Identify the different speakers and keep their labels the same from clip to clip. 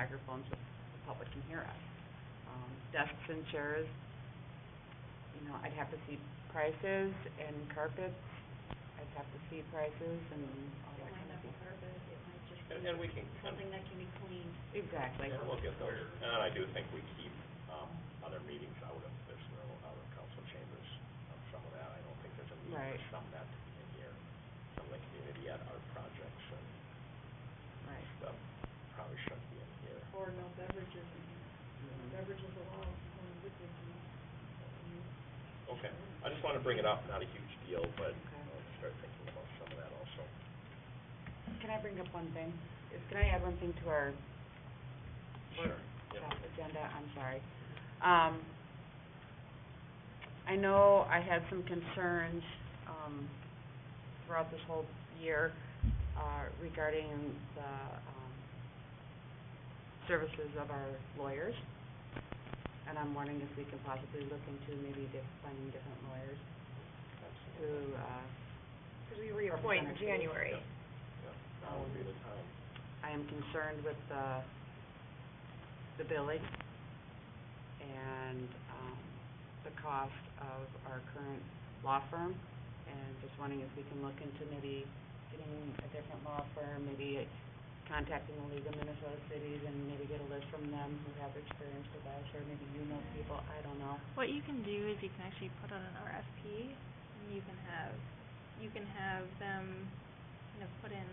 Speaker 1: microphones so the public can hear us. Um, desks and chairs, you know, I'd have to see prices and carpets, I'd have to see prices and all that kind of stuff.
Speaker 2: And, and we can, and
Speaker 1: Exactly.
Speaker 2: and we'll get those, and I do think we keep, um, other meetings out of this, room, out of council chambers, of some of that, I don't think there's a need
Speaker 1: Right.
Speaker 2: for some that to be in here. Some of the community had art projects and
Speaker 1: Right.
Speaker 2: stuff, probably shouldn't be in here.
Speaker 3: Or no beverages, in here. beverages allowed, only liquids in here.
Speaker 2: Okay, I just wanna bring it up, not a huge deal, but,
Speaker 1: Okay.
Speaker 2: I'll start thinking about some of that also.
Speaker 1: Can I bring up one thing? Is, can I add one thing to our Sure.
Speaker 2: Yeah.
Speaker 1: that agenda, I'm sorry. Um, I know I had some concerns, um, throughout this whole year, uh, regarding the, um, services of our lawyers. And I'm wondering if we can possibly look into maybe diff- finding different lawyers to, uh,
Speaker 3: Because we reappoint in
Speaker 1: Representative.
Speaker 3: January.
Speaker 2: Yeah, now would be the time.
Speaker 1: I am concerned with the, the billing and, um, the cost of our current law firm. And just wondering if we can look into maybe getting a different law firm, maybe contacting the League of Minnesota Cities and maybe get a list from them who have experience with us, or maybe you know people, I don't know.
Speaker 4: What you can do is you can actually put on an RFP, and you can have, you can have them kind of put in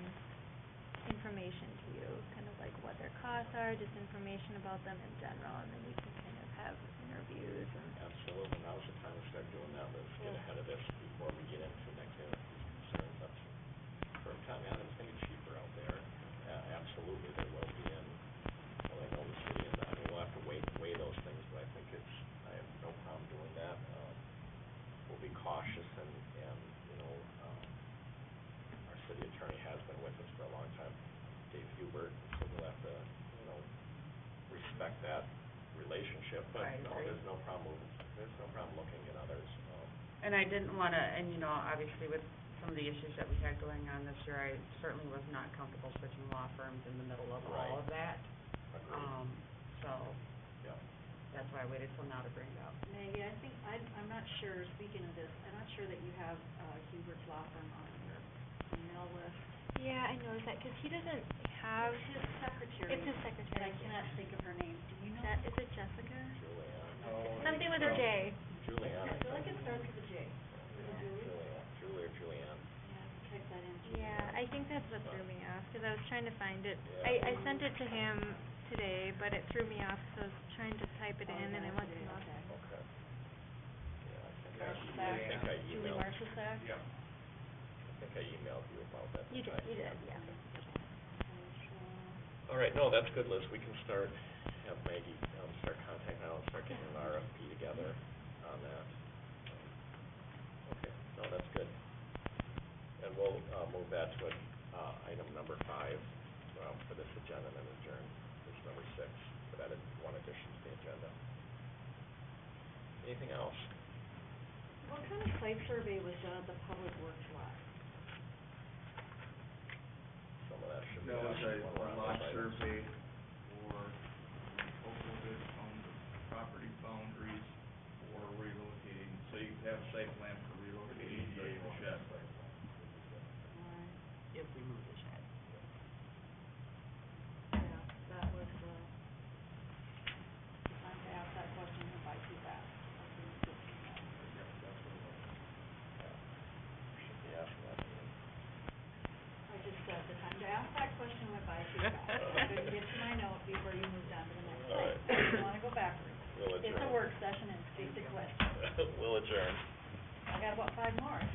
Speaker 4: information to you, kind of like what their costs are, just information about them in general, and then you can kind of have interviews and
Speaker 2: Absolutely, now's the time to start doing that, let's get ahead of this before we get into next year, concerns, that's, for a time, yeah, it's gonna be cheaper out there. Uh, absolutely, there will be, and, well, I know the city, and, I mean, we'll have to weigh, weigh those things, but I think it's, I have no problem doing that. Um, we'll be cautious and, and, you know, um, our city attorney has been with us for a long time, Dave Hubert, so we'll have to, you know, respect that relationship, but
Speaker 1: I
Speaker 2: no,
Speaker 1: agree.
Speaker 2: there's no problem, there's no problem looking at others, um,
Speaker 1: And I didn't wanna, and you know, obviously with some of the issues that we had going on this year, I certainly was not comfortable switching law firms in the middle of all of that.
Speaker 2: agreed,
Speaker 1: Um, so,
Speaker 2: yeah.
Speaker 1: that's why I waited till now to bring it up.
Speaker 3: Maggie, I think, I, I'm not sure, speaking of this, I'm not sure that you have, uh, Hubert's law firm on your email list.
Speaker 4: Yeah, I noticed that, 'cause he doesn't have,
Speaker 3: It's his secretary.
Speaker 4: it's his
Speaker 3: And I
Speaker 4: secretary.
Speaker 3: cannot think of her name, do you know?
Speaker 4: That, is it Jessica?
Speaker 2: Julianne,
Speaker 4: Something with a J.
Speaker 2: Julianne,
Speaker 3: I
Speaker 2: I
Speaker 3: feel like
Speaker 2: think,
Speaker 3: it starts with a J. Is it Julie?
Speaker 2: Julianne, Julie or Julianne,
Speaker 3: Yeah, check that in.
Speaker 4: Yeah, I think that's what threw me off, 'cause I was trying to find it.
Speaker 2: Yeah.
Speaker 4: I, I sent it to him today, but it threw me off, so I was trying to type it in and I went to lost it.
Speaker 2: okay. Yeah, I think I,
Speaker 3: Marshall
Speaker 2: I think I
Speaker 3: Sack, Julie
Speaker 2: emailed, I
Speaker 3: Marshall Sack?
Speaker 2: think I emailed you about that.
Speaker 4: You did,
Speaker 2: tonight.
Speaker 4: you did, yeah.
Speaker 2: All right, no, that's good, Liz, we can start, have Maggie, um, start contacting, I'll start getting an RFP together on that. Okay, no, that's good. And we'll, uh, move that to, uh, item number five, um, for this agenda and then adjourn, this number six, for that is one addition to the agenda. Anything else?
Speaker 3: What kind of site survey was done at the public works lot?
Speaker 2: Some of that should be.
Speaker 5: That was
Speaker 2: asked
Speaker 5: a
Speaker 2: while we're
Speaker 5: a
Speaker 2: on
Speaker 5: lot
Speaker 2: this item.
Speaker 5: survey for overloaded on the property boundaries for relocating, so you have a site plan for relocating the ADA shed.
Speaker 1: If we move the shed.
Speaker 3: Yeah, that was, uh, if I could ask that question, if I could ask.
Speaker 2: Should be asking that.
Speaker 3: I just said that I could ask that question, if I could ask. I couldn't get to my note before you moved on to the next slide.
Speaker 2: All right.
Speaker 3: I didn't wanna go backwards.
Speaker 2: We'll
Speaker 3: It's
Speaker 2: adjourn.
Speaker 3: a work session, it's just a question.
Speaker 2: We'll adjourn.
Speaker 3: I got about five more.